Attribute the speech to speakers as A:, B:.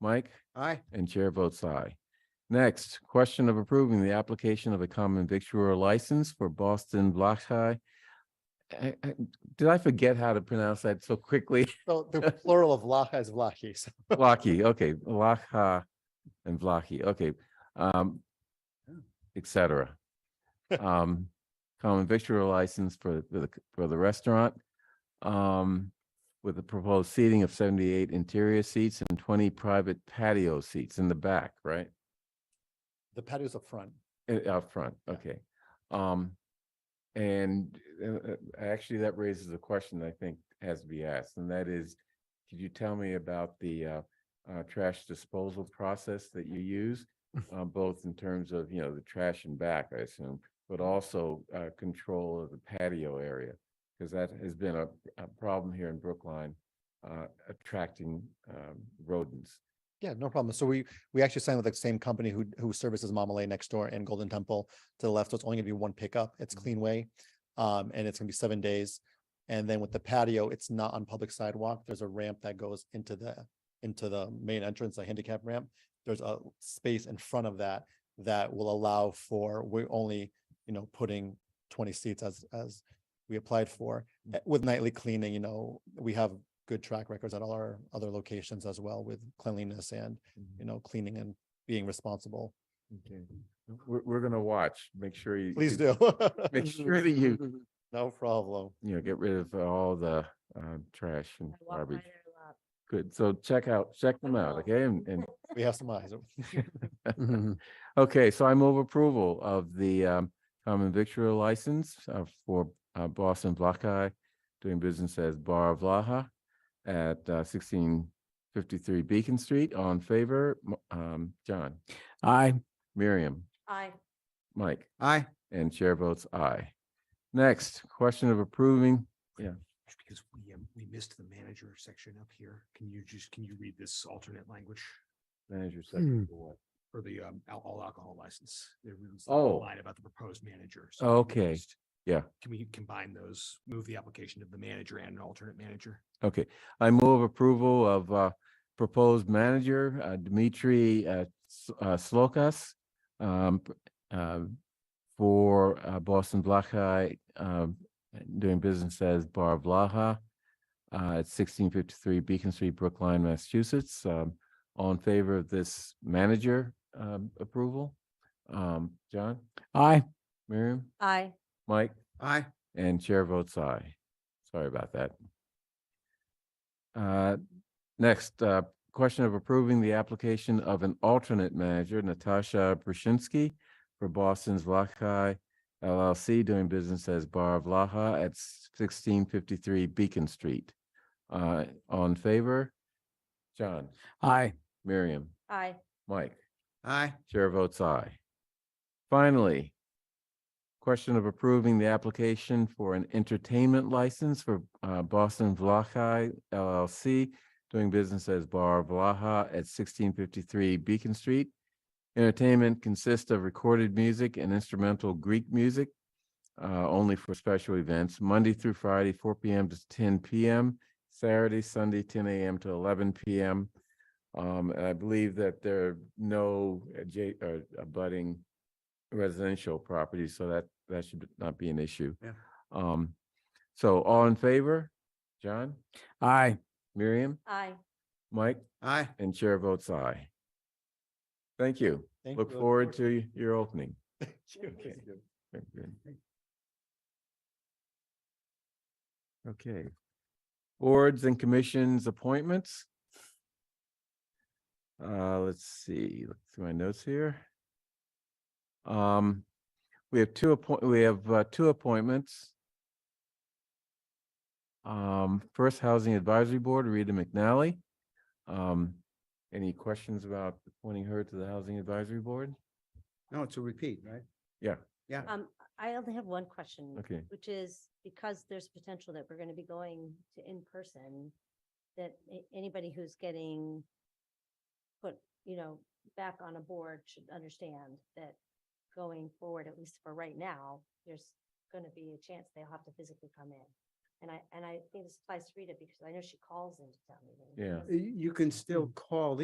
A: Mike?
B: Aye.
A: And chair votes aye. Next, question of approving the application of a common victualler license for Boston Vlachai. I- I- Did I forget how to pronounce that so quickly?
B: So the plural of Vlaha is Vlahi. So
A: Vlaki, okay, Vlacha and Vlaki, okay. um, Et cetera. Um, Common victualler license for the, for the restaurant. um, With the proposed seating of seventy-eight interior seats and twenty private patio seats in the back, right?
B: the patio's up front.
A: Uh, Out front, okay. Um, and uh, uh, actually, that raises a question I think has to be asked, and that is, could you tell me about the uh, uh, trash disposal process that you use? Uh, both in terms of, you know, the trash and back, I assume, but also uh, control of the patio area. Because that has been a, a problem here in Brookline, uh, attracting um, rodents.
B: Yeah, no problem. So we, we actually signed with the same company who, who services Mamalay next door and Golden Temple to the left. So it's only gonna be one pickup. It's
A: Mhm.
B: Clean Way. Um, and it's gonna be seven days. And then with the patio, it's not on public sidewalk. There's a ramp that goes into the, into the main entrance, a handicap ramp. There's a space in front of that that will allow for, we're only, you know, putting twenty seats as, as we applied for. Uh, With nightly cleaning, you know, we have good track records at all our other locations as well with cleanliness and, you know, cleaning and being responsible.
A: Okay. We're, we're gonna watch, make sure you.
B: Please do.
A: Make sure that you,
B: No problem.
A: you know, get rid of all the uh trash and
C: I walk by
A: garbage.
C: there a lot.
A: Good, so check out, check them out,
C: will.
A: okay, and, and,
B: We have some eyes.
A: okay, so I move approval of the um common victual license uh for uh Boston Vlahas doing business as Bar Vlaha at uh sixteen fifty-three Beacon Street, all in favor, M- um, John,
D: Aye.
A: Miriam,
C: Aye,
A: Mike,
D: Aye.
A: and chair votes aye. Next, question of approving
E: Just Because we, um, we missed the manager section up here. Can you just, can you read this alternate language
A: manager section for what?
E: for the, um, al- all alcohol license? There was a
A: Oh.
E: Line about the proposed managers.
A: Okay, yeah.
E: Can we combine those, move the application of the manager and an alternate manager?
A: Okay, I move approval of uh, proposed manager uh, Dmitry uh, S- uh, Slokas um, p- um, for uh, Boston Vlahas, um doing business as Bar Vlaha uh, at 1653 Beacon Street, Brookline, Massachusetts. Um, All in favor of this manager um, approval? Um, John,
D: Aye.
A: Miriam,
C: aye,
A: Mike?
D: Aye.
A: And chair votes aye. Sorry about that. Uh, Next, uh, question of approving the application of an alternate manager, Natasha Brushinsky, for Boston's Vlahas LLC, doing business as Bar Vlaha at sixteen fifty-three Beacon Street. Uh, All in favor? John,
D: Aye.
A: Miriam,
C: aye,
A: Mike?
D: Aye.
A: Chair votes aye. Finally, question of approving the application for an entertainment license for uh, Boston Vlahas LLC, doing business as Bar Vlaha at sixteen fifty-three Beacon Street. Entertainment consists of recorded music and instrumental Greek music, uh, only for special events, Monday through Friday, four PM to ten PM, Saturday, Sunday, ten AM to eleven PM. Um, and I believe that there are no adja- or abutting residential properties, so that, that should not be an issue.
E: Yeah.
A: Um, so all in favor? John,
D: Aye.
A: Miriam,
C: aye.
A: Mike,
D: Aye.
A: and chair votes aye. Thank you.
B: Thank
A: Look
B: you.
A: forward to your opening.
B: Thank you.
A: Very good. Okay. Boards and commissions appointments. Uh, let's see, look through my notes here. Um, we have two appoint, we have uh, two appointments. Um, first Housing Advisory Board, Rita McNally. Um, any questions about appointing her to the Housing Advisory Board?
D: No, it's a repeat, right?
C: Um, I only have one question,
A: Okay.
C: which is because there's potential that we're going to be going to in-person, that a- anybody who's getting put, you know, back on a board should understand that going forward, at least for right now, there's going to be a chance they'll have to physically come in. And I, and I think this applies to Rita because I know she calls into town meetings.
A: Yeah.
C: because-
E: Mm.
D: You can still call in.